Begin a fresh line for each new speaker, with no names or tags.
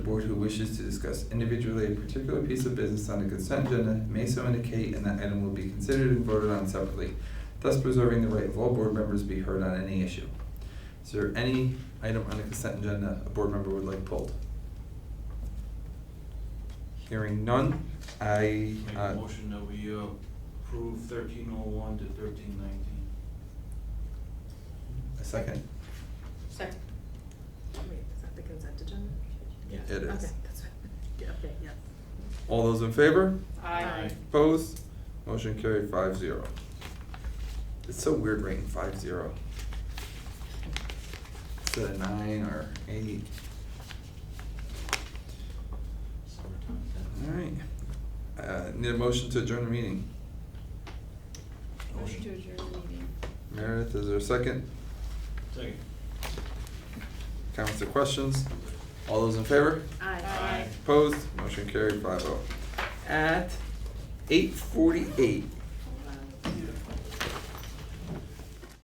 board who wishes to discuss individually a particular piece of business on the consent agenda may so indicate, and that item will be considered and voted on separately, thus preserving the right of all board members to be heard on any issue. Is there any item on the consent agenda a board member would like pulled? Hearing none, I,
Make
uh,
a motion that we uh, approve thirteen oh one to thirteen nineteen.
a second.
Second.
Wait, is that the consent agenda?
Yes.
It is.
Okay, that's right. Yeah, okay, yeah.
All those in favor?
Aye.
Aye.
Opposed? Motion carried five zero. It's so weird rating five zero. Instead of nine or eight.
Summertime.
Alright. Uh, need a motion to adjourn the meeting.
Motion to adjourn the meeting.
Meredith, is there a second?
Second.
Comments or questions? All those in favor?
Aye.
Aye.
Opposed? Motion carried five oh. At eight forty-eight,